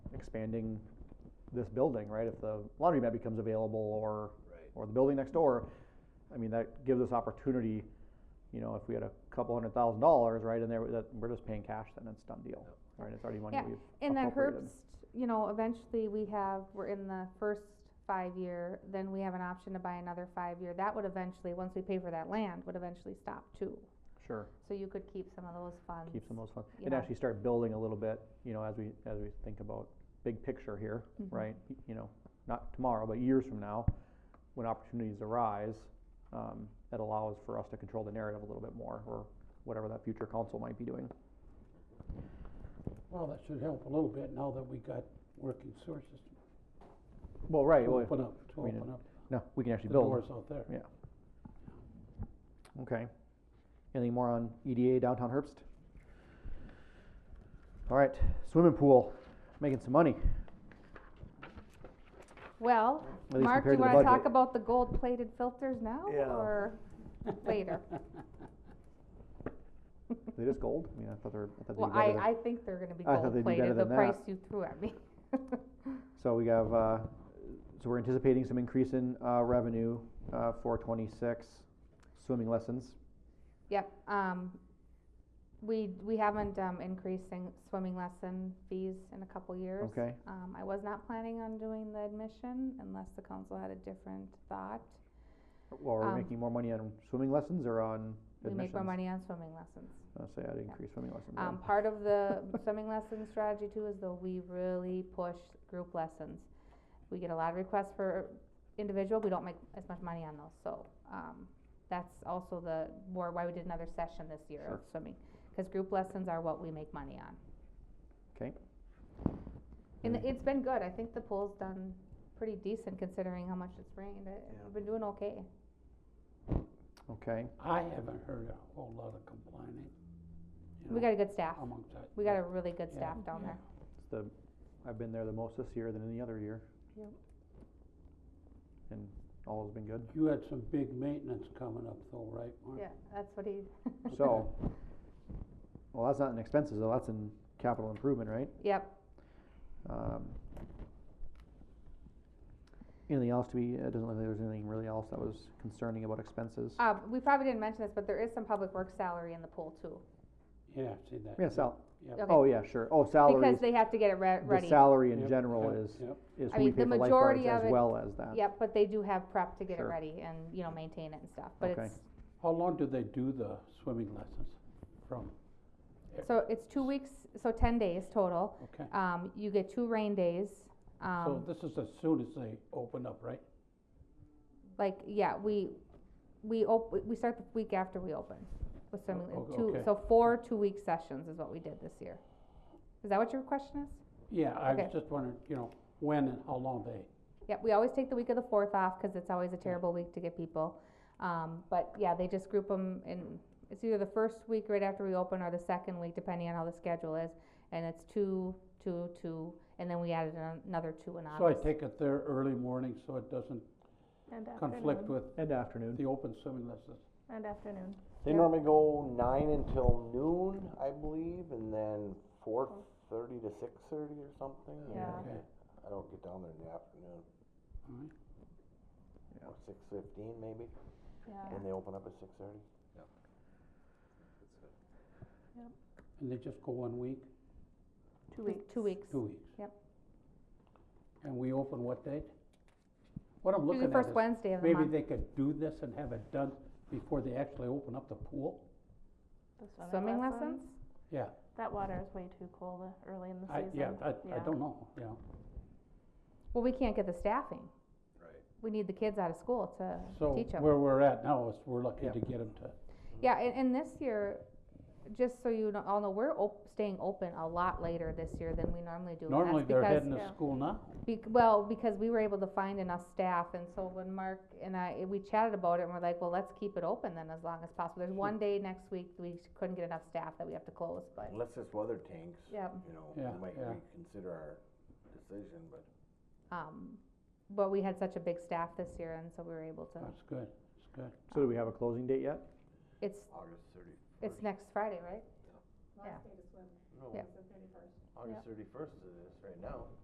expanding this building, right? If the laundromat becomes available or, Right. or the building next door, I mean, that gives us opportunity, you know, if we had a couple hundred thousand dollars, right, and there, that, we're just paying cash, then it's done deal, right? It's already money Yeah, we've And then appropriated. Herbst, you know, eventually we have, we're in the first five year, then we have an option to buy another five year. That would eventually, once we pay for that land, would eventually stop too. Sure, So you could keep some of those funds. keep some of those funds, you and know. actually start building a little bit, you know, as we, as we think about big picture here, Mhm. right? Y- You know, not tomorrow, but years from now, when opportunities arise, um, that allows for us to control the narrative a little bit more, or whatever that future council might be doing. Well, that should help a little bit now that we got working sources Well, right, to well, open up, to I mean, open up no, we can the actually build. doors out there. Okay. Anything more on EDA downtown Herbst? All right, swimming pool, making some money, Well, at least Mark, do compared to you the budget. wanna talk about the gold plated filters now Yeah. or later? They just gold? I mean, I thought they were, I thought Well, they'd be better than. I, I think they're gonna be I thought they'd gold do better plated, the than price that. you threw at me. So we have, uh, so we're anticipating some increase in, uh, revenue, uh, for twenty-six swimming lessons. Yep, um, we, we haven't, um, increased in swimming lesson fees in a couple years. Okay. Um, I was not planning on doing the admission unless the council had a different thought. Well, are Um, we making more money on swimming lessons or on We admissions? make more money on swimming lessons. I'll say I'd increase swimming lessons. then. Um, part of the swimming lesson strategy too is though we really push group lessons. We get a lot of requests for individual, we don't make as much money on those, so, um, that's also the, more why we did another session this year of swimming. Cause group lessons are what we make money on. 'Kay. And Mm. it's been good, I think the pool's done pretty decent considering how much it's rained, Uh, Yeah. we've been doing okay. Okay, I haven't heard a whole lot of complaining. you We know, got a good staff, Amongst that. we got a really good Um, Yeah. staff down there. it's the, I've been there the most this year than any other year. Yep. And all has been good. You had some big maintenance coming up though, right, Mark? Yeah, that's what he, So, well, that's not in expenses though, that's in capital improvement, right? yep, Um, Anything else to be, it doesn't look like there's anything really else that was concerning about expenses. Uh, we probably didn't mention this, but there is some public work salary in the pool too. Yeah, see that. Yeah, sal, Yep. Okay. oh, yeah, sure, oh, salaries, Because they have to get it re- the ready. salary in Yep, general yep, is, yep. is I who we mean, pay the for lifeguards majority as of it- well as that. Yep, but they do have prep to get it uh, Sure. ready and, you know, maintain it and stuff, but Okay. it's, How long do they do the swimming lessons from? so it's two weeks, so ten days total. Okay, Um, you get two rain days, so um, this is as soon as they open up, right? like, yeah, we, we op, we start the week after we open with swimming, O- o- two, Oh, okay. so four two-week sessions is what we did this year. Is that what your question is? Yeah, I was Okay. just wondering, you know, when and how long they Yep, we always take the week of the fourth off, cause it's always a terrible week to get people. Um, but yeah, they just group them in, it's either the first week right after we open or the second week, depending on how the schedule is. And it's two, two, two, and then we added an- another two in So I August. take it there early morning, so it doesn't conflict with And afternoon. the open swimming lessons. And afternoon. They Yeah. normally go nine until noon, I believe, and then four thirty to six thirty or something. and Yeah. Okay, I don't get down there in the afternoon, all right. or six fifteen maybe, Yeah. and they open up at six thirty. And they just go one week, Two Just weeks. Two weeks. two weeks? Yep. And we open what date? What I'm Usually looking at first is, Wednesday of the maybe month. they could do this and have it done before they actually open up the pool? The Swimming lessons? Yeah, That water is way too cold uh, early in the I, season. yeah, I, I Yeah. don't know, you know. Well, we can't get the staffing. Right. We need the kids out of school to So teach them. where we're at now is we're lucky Yeah. to get them to, Yeah, and, and this year, just so you know, all know, we're op- staying open a lot later this year than we normally do. and that's normally they're because- heading to yeah. school now. Bec- well, because we were able to find enough staff, and so when Mark and I, we chatted about it, and we're like, well, let's keep it open then as long as possible. There's one day next week, we couldn't get enough staff that we have to close, but, Unless this weather tanks, yeah. you know, Yeah, we might yeah. reconsider our decision, but. Um, but we had such a big staff this year, and so we were able to, That's good, that's good. So do we have a closing date yet? it's, August thirty. it's next Friday, right? Yeah. No, yeah. August thirty-first it is right now.